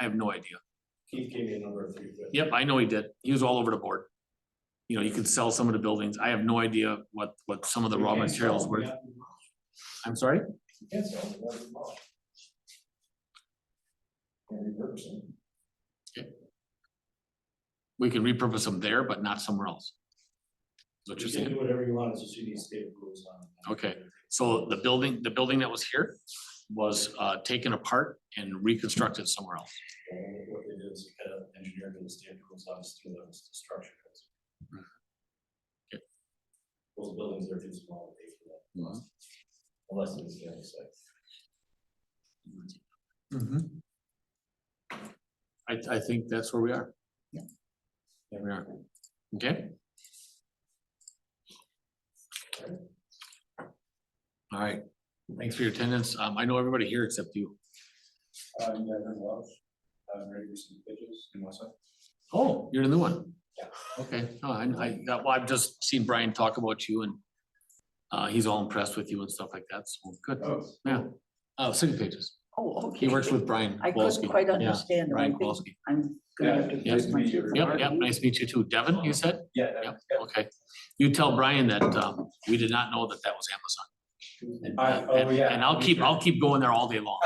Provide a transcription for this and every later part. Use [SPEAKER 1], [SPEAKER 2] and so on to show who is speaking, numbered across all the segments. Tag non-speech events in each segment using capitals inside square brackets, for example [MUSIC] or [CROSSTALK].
[SPEAKER 1] I have no idea.
[SPEAKER 2] Keith gave me a number of three. but-
[SPEAKER 1] Yep, I know he did. He was all over the board. You know, you could sell some of the buildings. I have no idea what, what some of the raw
[SPEAKER 2] You can't
[SPEAKER 1] materials
[SPEAKER 2] sell them,
[SPEAKER 1] were.
[SPEAKER 2] yeah.
[SPEAKER 1] I'm sorry?
[SPEAKER 2] You can't sell them, they're not mine. Can't repurpose them.
[SPEAKER 1] We can repurpose them there, but not somewhere else. Is what
[SPEAKER 2] You
[SPEAKER 1] you're
[SPEAKER 2] can
[SPEAKER 1] saying.
[SPEAKER 2] do whatever you want, it's just you need state rules on.
[SPEAKER 1] Okay. So the building, the building that was here was, uh, taken apart and reconstructed somewhere else.
[SPEAKER 2] And what they did is kind of engineered in the state rules on this through those structures.
[SPEAKER 1] Okay.
[SPEAKER 2] Those buildings are too small to pay for that. Unless it's, you know, it's like. Mm-hmm.
[SPEAKER 1] I, I think that's where we are.
[SPEAKER 2] Yeah.
[SPEAKER 1] There we are. Okay? All right, thanks for your attendance. Um, I know everybody here except you.
[SPEAKER 2] Uh, yeah, there's lots. I'm ready for some pictures in Westside.
[SPEAKER 1] Oh, you're the new one?
[SPEAKER 2] Yeah.
[SPEAKER 1] Okay, no, I, I, that- well, I've just seen Brian talk about you and uh, he's all impressed with you and stuff like that, so good.
[SPEAKER 2] Oh.
[SPEAKER 1] Yeah. Uh, City Pages.
[SPEAKER 3] Oh, okay.
[SPEAKER 1] He works with Brian
[SPEAKER 3] I couldn't
[SPEAKER 1] Kowalski.
[SPEAKER 3] quite
[SPEAKER 1] Yeah,
[SPEAKER 3] understand. him. I
[SPEAKER 1] Brian
[SPEAKER 3] think
[SPEAKER 1] Kowalski.
[SPEAKER 3] I'm gonna have to.
[SPEAKER 2] Yeah,
[SPEAKER 3] fix
[SPEAKER 2] nice
[SPEAKER 3] my
[SPEAKER 2] to meet you.
[SPEAKER 3] computer.
[SPEAKER 1] Yep, yep, nice to meet you too. Devin, you said?
[SPEAKER 2] Yeah.
[SPEAKER 1] Yep.
[SPEAKER 2] that-
[SPEAKER 1] Okay. You tell Brian that, um, we did not know that that was Amazon. And,
[SPEAKER 2] I-
[SPEAKER 1] uh,
[SPEAKER 2] oh,
[SPEAKER 1] And,
[SPEAKER 2] yeah.
[SPEAKER 1] and I'll keep, I'll keep going there all day
[SPEAKER 2] [LAUGHS]
[SPEAKER 1] long.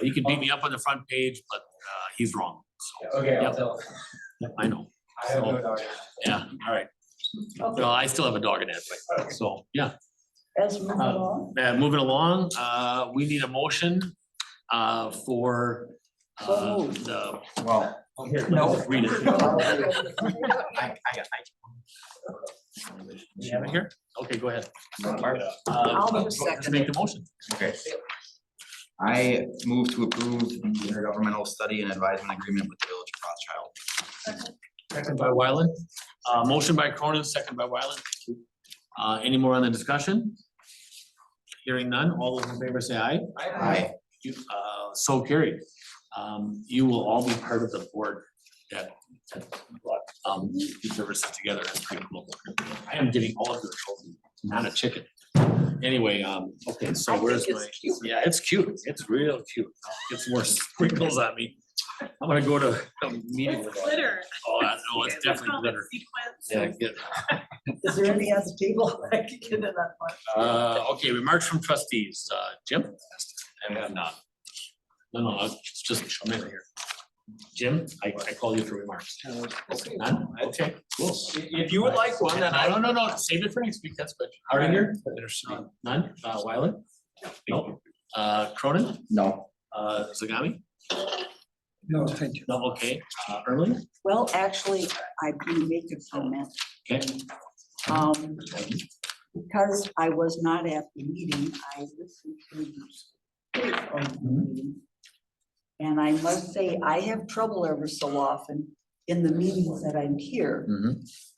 [SPEAKER 1] He could beat me up on the front page, but, uh, he's wrong.
[SPEAKER 2] Yeah, Okay, I'll
[SPEAKER 1] Yep.
[SPEAKER 2] tell.
[SPEAKER 1] I know.
[SPEAKER 2] I have no doubt.
[SPEAKER 1] Yeah, all right. Well, I still have a dog in that fight. So, yeah.
[SPEAKER 3] As we move
[SPEAKER 1] Uh,
[SPEAKER 3] along,
[SPEAKER 1] Uh, moving along, uh, we need a motion, uh, for, uh,
[SPEAKER 3] So moved.
[SPEAKER 1] the,
[SPEAKER 4] Well,
[SPEAKER 1] here,
[SPEAKER 4] No.
[SPEAKER 1] let's read it.
[SPEAKER 4] I, I, I.
[SPEAKER 1] You have it here? Okay, go ahead.
[SPEAKER 2] Mark?
[SPEAKER 1] Uh,
[SPEAKER 3] I'll
[SPEAKER 1] just
[SPEAKER 3] second
[SPEAKER 1] Make the motion.
[SPEAKER 4] Okay. I move to approve the intergovernmental study and advisement agreement with the Village of Rothschild.
[SPEAKER 1] Second by Wyland. Uh, motion by Cronin, second by Wyland. Uh, any more on the discussion? Hearing none, all those in favor say aye.
[SPEAKER 4] Aye.
[SPEAKER 1] You, uh, so carried. Um, you will all be part of the board that, that brought, um, these services together. That's pretty cool. I am getting all of your children, not a chicken. Anyway, um, okay, so
[SPEAKER 3] I think
[SPEAKER 1] where's my,
[SPEAKER 3] it's cute.
[SPEAKER 1] yeah, it's cute. It's real cute. Gets more [LAUGHS] sprinkles on me. I'm gonna go to a meeting. with
[SPEAKER 5] It's glitter.
[SPEAKER 1] Oh, I- no, it's
[SPEAKER 5] Let's
[SPEAKER 1] definitely
[SPEAKER 5] call it
[SPEAKER 1] glitter.
[SPEAKER 5] sequence.
[SPEAKER 1] Yeah, good.
[SPEAKER 3] [LAUGHS] Is there any other table that [LAUGHS] I could get in on?
[SPEAKER 1] Uh, okay, remarks from trustees, uh, Jim? I have not. No, no, uh, it's just a minute here. Jim, I, I call you for remarks. None? Okay, cool.
[SPEAKER 2] If you would like one, then I.
[SPEAKER 1] No, no, no, save it for next week, that's good. Hardinger? None. None? Uh, Wyland? No. Uh, Cronin?
[SPEAKER 4] No.
[SPEAKER 1] Uh, Zagami?
[SPEAKER 3] No, thank you.
[SPEAKER 1] No, okay. Uh, Ermeling?
[SPEAKER 3] Well, actually, I can make a comment.
[SPEAKER 1] Okay.
[SPEAKER 3] Um, because I was not at the meeting, I listened to the tape of the meeting. And I must say, I have trouble ever so often in the meetings that I'm here,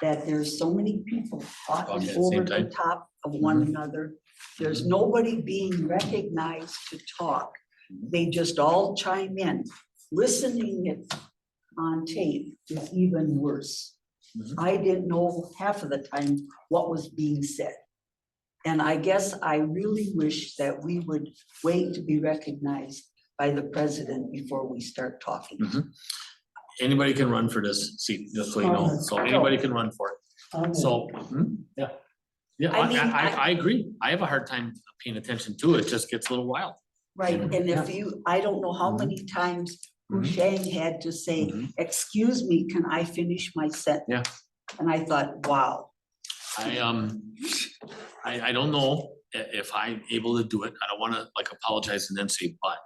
[SPEAKER 3] that there's so many people
[SPEAKER 1] Talking
[SPEAKER 3] talking
[SPEAKER 1] at the same
[SPEAKER 3] over the
[SPEAKER 1] time.
[SPEAKER 3] top of one another. There's nobody being recognized to talk. They just all chime in. Listening it on tape is even worse.
[SPEAKER 1] Mhm.
[SPEAKER 3] I didn't know half of the time what was being said. And I guess I really wish that we would wait to be recognized by the president before we start talking.
[SPEAKER 1] Mhm. Anybody can run for this seat, just so you know, so anybody can run for it. So, hmm, yeah. Yeah,
[SPEAKER 3] I
[SPEAKER 1] I,
[SPEAKER 3] mean,
[SPEAKER 1] I,
[SPEAKER 3] I-
[SPEAKER 1] I agree. I have a hard time paying attention to it. It just gets a little wild.
[SPEAKER 3] Right, and if you, I don't know how
[SPEAKER 1] Mhm.
[SPEAKER 3] many times
[SPEAKER 1] Mhm.
[SPEAKER 3] Hushang had to say,
[SPEAKER 1] Mhm.
[SPEAKER 3] excuse me, can I finish my sentence?
[SPEAKER 1] Yeah.
[SPEAKER 3] And I thought, wow,
[SPEAKER 1] I, um, I, I don't know i- if I'm able to do it. I don't wanna like apologize and then say but.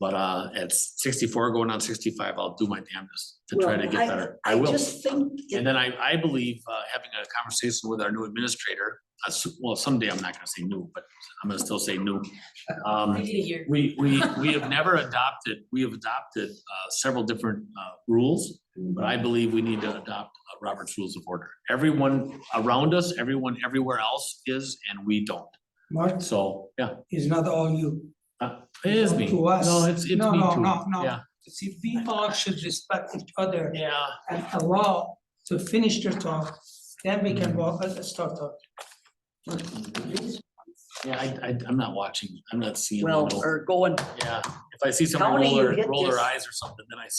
[SPEAKER 1] But, uh, at sixty-four, going on sixty-five, I'll do my damnedest to try to
[SPEAKER 3] Well,
[SPEAKER 1] get
[SPEAKER 3] I-
[SPEAKER 1] better. I
[SPEAKER 3] I
[SPEAKER 1] will.
[SPEAKER 3] just think, it-
[SPEAKER 1] And then I, I believe, uh, having a conversation with our new administrator, uh, s- well, someday I'm not gonna say new, but I'm gonna still say new. Um,
[SPEAKER 5] We need a year.
[SPEAKER 1] We, we, we have never adopted, we have adopted uh, several different uh, rules, but I believe we need to adopt uh, Robert's Rules of Order. Everyone around us, everyone everywhere else is, and we don't.
[SPEAKER 6] Mark
[SPEAKER 1] So, yeah,
[SPEAKER 6] is not all you.
[SPEAKER 1] it is me.
[SPEAKER 6] To us.
[SPEAKER 1] No, it's, it's me
[SPEAKER 6] No, no,
[SPEAKER 1] too.
[SPEAKER 6] no, no.
[SPEAKER 1] Yeah,
[SPEAKER 6] See, people should respect each other
[SPEAKER 1] yeah,
[SPEAKER 6] and allow to finish their talk, then we can walk, uh, start talking.
[SPEAKER 1] Yeah, I, I, I'm not watching, I'm not seeing. the
[SPEAKER 3] Well,
[SPEAKER 1] note.
[SPEAKER 3] or going
[SPEAKER 1] Yeah, if I see someone
[SPEAKER 3] Tony,
[SPEAKER 1] roll
[SPEAKER 3] you
[SPEAKER 1] their,
[SPEAKER 3] get
[SPEAKER 1] roll their
[SPEAKER 3] this.
[SPEAKER 1] eyes or something, then I see.